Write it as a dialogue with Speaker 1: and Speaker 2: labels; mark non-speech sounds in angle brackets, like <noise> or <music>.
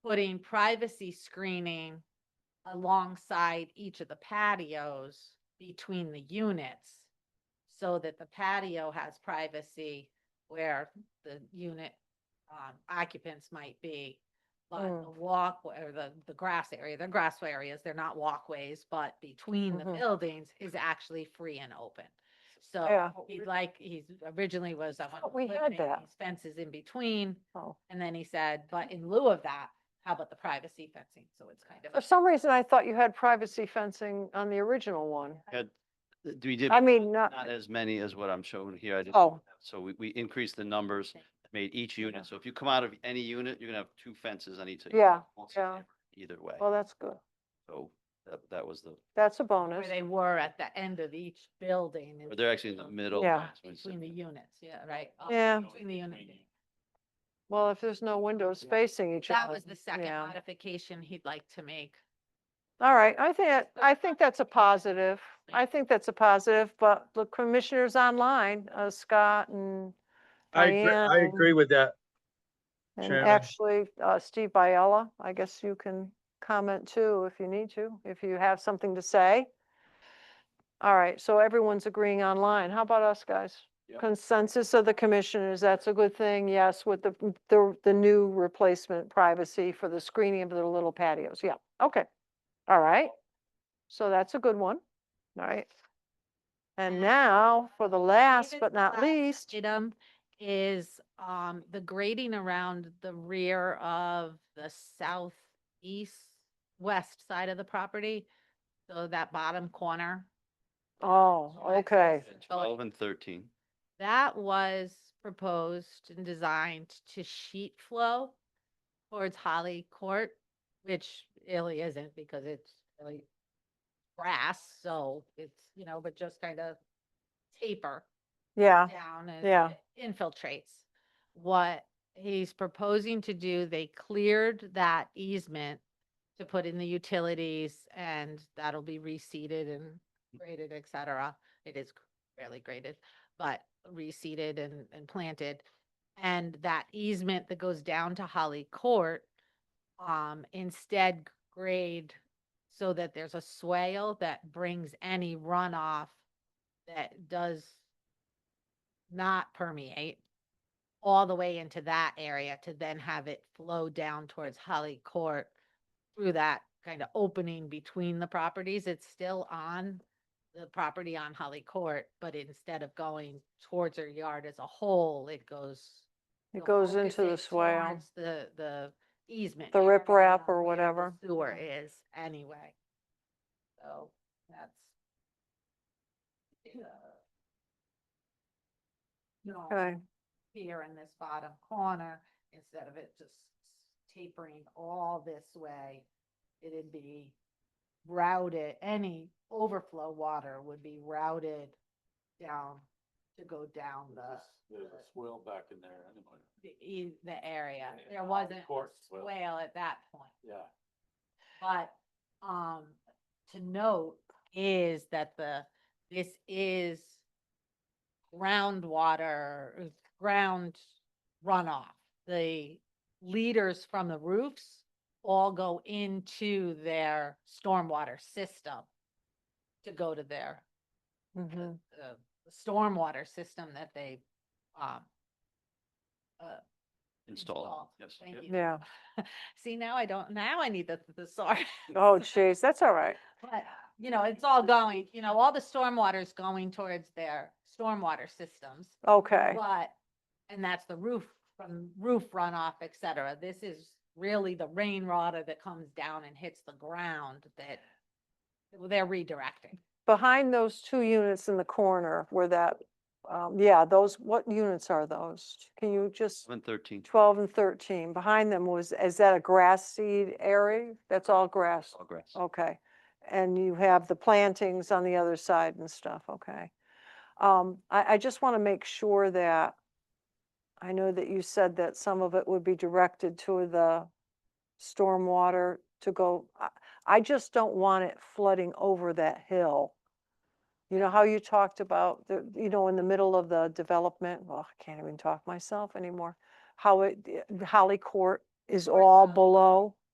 Speaker 1: putting privacy screening alongside each of the patios between the units so that the patio has privacy where the unit um, occupants might be. But
Speaker 2: Mm.
Speaker 1: the walkway or the, the grass area, the grassway areas, they're not walkways, but between the
Speaker 2: Mhm.
Speaker 1: buildings is actually free and open. So
Speaker 2: Yeah.
Speaker 1: he'd like, he's originally was. I want
Speaker 2: thought
Speaker 1: to
Speaker 2: we had
Speaker 1: eliminate
Speaker 2: that.
Speaker 1: these Fences in between.
Speaker 2: Oh.
Speaker 1: And then he said, but in lieu of that, how about the privacy fencing? So it's kind
Speaker 2: For
Speaker 1: of,
Speaker 2: some reason, I thought you had privacy fencing on the original one.
Speaker 3: Had, th- we did
Speaker 2: I mean, not,
Speaker 3: not as many as what I'm showing here. I did-
Speaker 2: oh,
Speaker 3: So we, we increased the numbers,
Speaker 1: Okay.
Speaker 3: made each unit. So if you come out of any unit, you're gonna have two fences on each. of you.
Speaker 2: Yeah,
Speaker 3: Won't see
Speaker 2: yeah.
Speaker 3: it Either way.
Speaker 2: well, that's good.
Speaker 3: So that, that was the,
Speaker 2: That's a
Speaker 1: where
Speaker 2: bonus.
Speaker 1: they were at the end of each building.
Speaker 3: but
Speaker 1: and
Speaker 3: they're actually in the middle.
Speaker 2: Yeah.
Speaker 3: that's what we said.
Speaker 1: Between the units, yeah, right? up
Speaker 2: Yeah.
Speaker 1: Between the units.
Speaker 2: Well, if there's no windows facing each
Speaker 1: That
Speaker 2: other.
Speaker 1: was the second
Speaker 2: yeah.
Speaker 1: modification he'd like to make.
Speaker 2: All right, I think, that- I think that's a positive. I think that's a positive, but the commissioners online, uh, Scott and
Speaker 4: I, agree- I
Speaker 2: Diane.
Speaker 4: agree with that.
Speaker 2: And
Speaker 4: Chairman.
Speaker 2: actually, uh, Steve Biella, I guess you can comment too if you need to, if you have something to say. All right, so everyone's agreeing online. How about us, guys?
Speaker 3: Yeah.
Speaker 2: Consensus of the commissioners, that's a good thing, yes, with the, the, the new replacement privacy for the screening of the little patios, yeah, okay. All right, so that's a good one, all right. And
Speaker 1: And
Speaker 2: now, for the last but
Speaker 1: David's
Speaker 2: not
Speaker 1: last
Speaker 2: least,
Speaker 1: Item is um the grading around the rear of the southeast west side of the property. So that bottom corner.
Speaker 2: oh, okay,
Speaker 3: And
Speaker 1: Oh,
Speaker 3: Twelve and thirteen.
Speaker 1: That was proposed and designed to sheet flow towards Holly Court, which really isn't because it's really grass, so it's, you know, but just kind of taper
Speaker 2: yeah,
Speaker 1: down and
Speaker 2: Yeah.
Speaker 1: it infiltrates. What he's proposing to do, they cleared that easement to put in the utilities and that'll be reseeded and graded, et cetera. It is barely graded, but reseeded and, and planted. And that easement that goes down to Holly Court, um, instead grade so that there's a swale that brings any runoff that does not permeate all the way into that area to then have it flow down towards Holly Court through that kind of opening between the properties. It's still on the property on Holly Court, but instead of going towards her yard as a whole, it goes.
Speaker 2: it
Speaker 1: you'll
Speaker 2: goes
Speaker 1: focus
Speaker 2: into the
Speaker 1: it
Speaker 2: swale.
Speaker 1: towards The, the easement.
Speaker 2: The
Speaker 1: area
Speaker 2: riprap or
Speaker 1: where the
Speaker 2: whatever.
Speaker 1: Sewer is anyway. So that's. uh, No
Speaker 2: Okay.
Speaker 1: here in this bottom corner, instead of it just tapering all this way, it'd be routed, any overflow water would be routed down to go down the,
Speaker 5: There's a swell back in there anyway.
Speaker 1: the, e- the area.
Speaker 5: Yeah,
Speaker 1: There
Speaker 5: on the
Speaker 1: wasn't a
Speaker 5: court swale.
Speaker 1: swale at that point.
Speaker 5: Yeah.
Speaker 1: But, um, to note is that the, this is groundwater, uh, ground runoff. The leaders from the roofs all go into their stormwater system to go to their,
Speaker 2: mhm.
Speaker 1: uh, uh, stormwater system that they, um, uh,
Speaker 3: Installed.
Speaker 1: Installed.
Speaker 3: Yes.
Speaker 1: Thank
Speaker 3: yep.
Speaker 1: you.
Speaker 2: Yeah.
Speaker 1: See, now I don't, now I need the <laughs> thesaurus.
Speaker 2: Oh, jeez, that's all right.
Speaker 1: But, you know, it's all going, you know, all the stormwater is going towards their stormwater systems.
Speaker 2: Okay.
Speaker 1: But, and that's the roof, from roof runoff, et cetera. This is really the rain water that comes down and hits the ground that they're redirecting.
Speaker 2: Behind those two units in the corner where that, um, yeah, those, what units are those? Can you just,
Speaker 3: Twelve and thirteen.
Speaker 2: twelve and thirteen, behind them was, is that a grass seed area? That's all grass,
Speaker 3: All grass.
Speaker 2: okay. And you have the plantings on the other side and stuff, okay. Um, I, I just want to make sure that, I know that you said that some of it would be directed to the stormwater to go, I, I just don't want it flooding over that hill. You know how you talked about, the you know, in the middle of the development, well, I can't even talk myself anymore, how it, Holly Court is all
Speaker 1: Courthouse.
Speaker 2: below,